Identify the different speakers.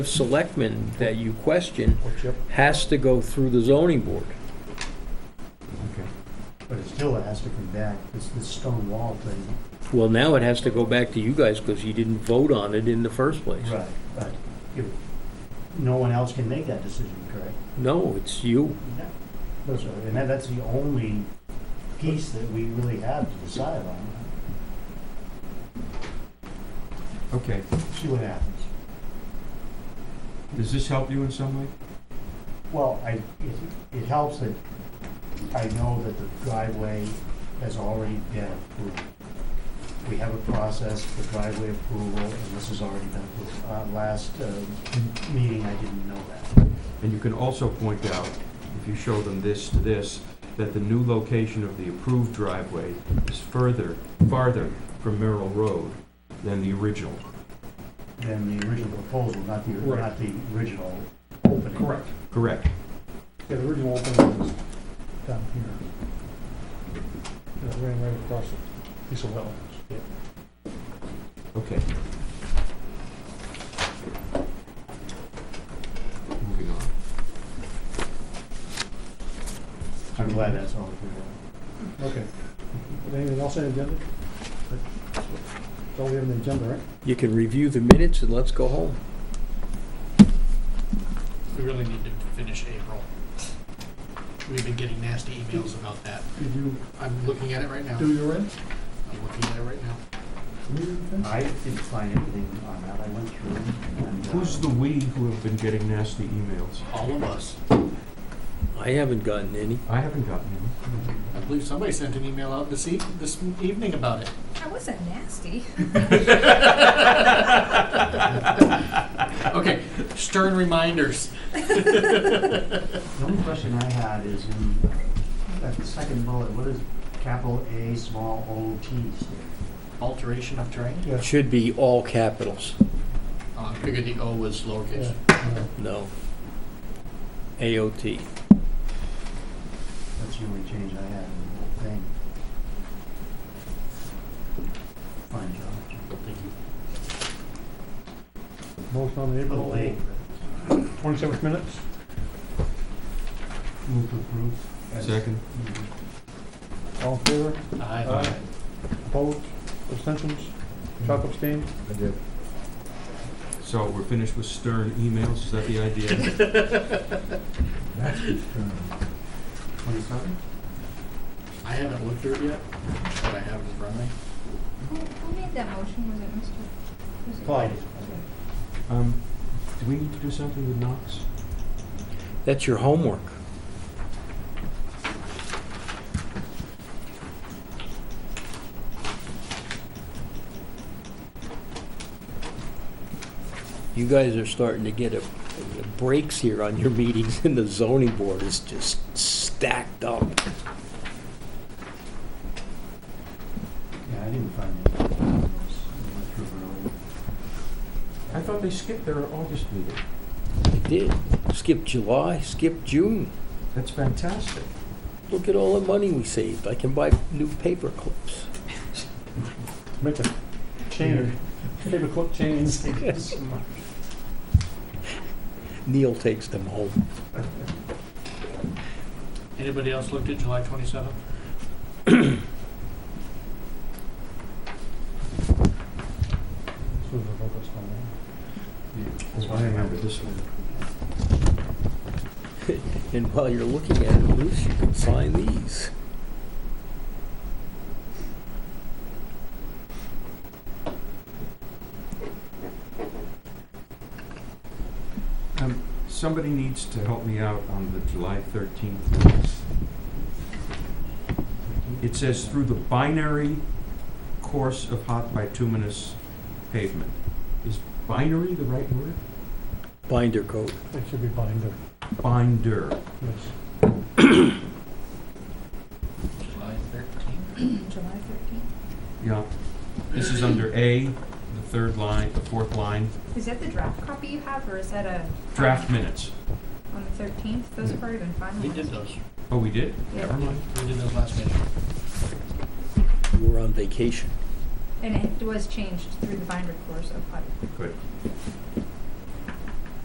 Speaker 1: selectman that you question
Speaker 2: Or chip,
Speaker 1: has to go through the zoning board.
Speaker 2: but it still has to come back, this, this stone wall thing.
Speaker 1: Well, now it has to go back to you guys because you didn't vote on it in the first place.
Speaker 2: Right. But you, no one else can make that decision, correct?
Speaker 1: No, it's you.
Speaker 2: That's right, And that, that's the only piece that we really have to decide on,
Speaker 3: Okay,
Speaker 2: see what happens.
Speaker 3: does this help you in some way?
Speaker 2: Well, I, it, it helps that I know that the driveway has already been approved. We have a process for driveway approval, and this has already been approved. Uh, last, uh, meeting, I didn't know that.
Speaker 3: And you can also point out, if you show them this to this, that the new location of the approved driveway is further, farther from Merrill Road than the original.
Speaker 2: Than the original proposal, not the,
Speaker 4: Right.
Speaker 2: not the original opening.
Speaker 4: Correct.
Speaker 3: Correct.
Speaker 4: Yeah, the original opening was down here. And it ran right across a piece of wetlands.
Speaker 3: Okay. Moving on.
Speaker 2: I'm glad that's all we have.
Speaker 4: Okay. Anything else on the agenda? Don't we have an agenda, right?
Speaker 1: You can review the minutes and let's go home.
Speaker 5: We really need to finish April. We've been getting nasty emails about that.
Speaker 4: Did you
Speaker 5: I'm looking at it right now.
Speaker 4: do your end?
Speaker 5: I'm looking at it right now. Uh,
Speaker 2: I didn't find anything on that, I went through it, and. uh,
Speaker 3: Who's the "we" who have been getting nasty emails?
Speaker 5: All of us.
Speaker 1: I haven't gotten any.
Speaker 3: I haven't gotten any.
Speaker 5: I believe somebody sent an email out this eve, this evening about it.
Speaker 6: That wasn't nasty.
Speaker 5: Okay, stern reminders.
Speaker 2: The only question I had is in that second bullet, what is capital A, small o, t stand?
Speaker 5: Alteration of terrain.
Speaker 1: It should be all capitals.
Speaker 5: Uh, I figured the O was lowercase.
Speaker 4: Yeah.
Speaker 1: No. AOT.
Speaker 2: That's the only change I had in the whole thing. Fine job.
Speaker 5: Thank you.
Speaker 4: Motion on the
Speaker 2: A little
Speaker 4: April
Speaker 2: late,
Speaker 4: twenty-seventh minutes?
Speaker 2: but move to approve.
Speaker 3: Second?
Speaker 4: All in favor?
Speaker 5: Aye.
Speaker 4: Opposed? Abstentions? Chuck abstained?
Speaker 3: I did. So we're finished with stern emails, is that the idea?
Speaker 2: Twenty-seven?
Speaker 5: I haven't looked through it yet, but I have it in front of me.
Speaker 6: Who, who made that motion? Was it Mr.? was it-
Speaker 2: Clyde.
Speaker 3: Um, do we need to do something with Knox?
Speaker 1: That's your homework. You guys are starting to get a, breaks here on your meetings and the zoning board is just stacked up.
Speaker 2: Yeah, I didn't find it. I went through it earlier.
Speaker 3: I thought they skipped their August meeting.
Speaker 1: They did. Skip July, skip June.
Speaker 3: That's fantastic.
Speaker 1: Look at all the money we saved. I can buy new paper clips.
Speaker 4: Make a chain, paper clip chains.
Speaker 1: Neil takes them home.
Speaker 5: Anybody else looked at July twenty-seventh?
Speaker 3: That's why I remember this one.
Speaker 1: And while you're looking at it, Bruce, you can sign these.
Speaker 3: Um, somebody needs to help me out on the July thirteenth minutes. It says through the binary course of hot bituminous pavement. Is binary the right word?
Speaker 1: Binder coat.
Speaker 4: It should be binder,
Speaker 3: Binder.
Speaker 4: yes.
Speaker 5: July thirteenth.
Speaker 6: July thirteenth.
Speaker 3: Yeah. This is under A, the third line, the fourth line,
Speaker 6: Is that the draft copy you have, or is that a?
Speaker 3: draft minutes.
Speaker 6: On the thirteenth? Those have already been
Speaker 5: We did
Speaker 6: finalized.
Speaker 5: those.
Speaker 3: Oh, we did?
Speaker 6: Yeah.
Speaker 3: Never mind.
Speaker 5: We did those last meeting.
Speaker 1: You were on vacation.
Speaker 6: And it was changed through the binder course of HUD.
Speaker 3: Good.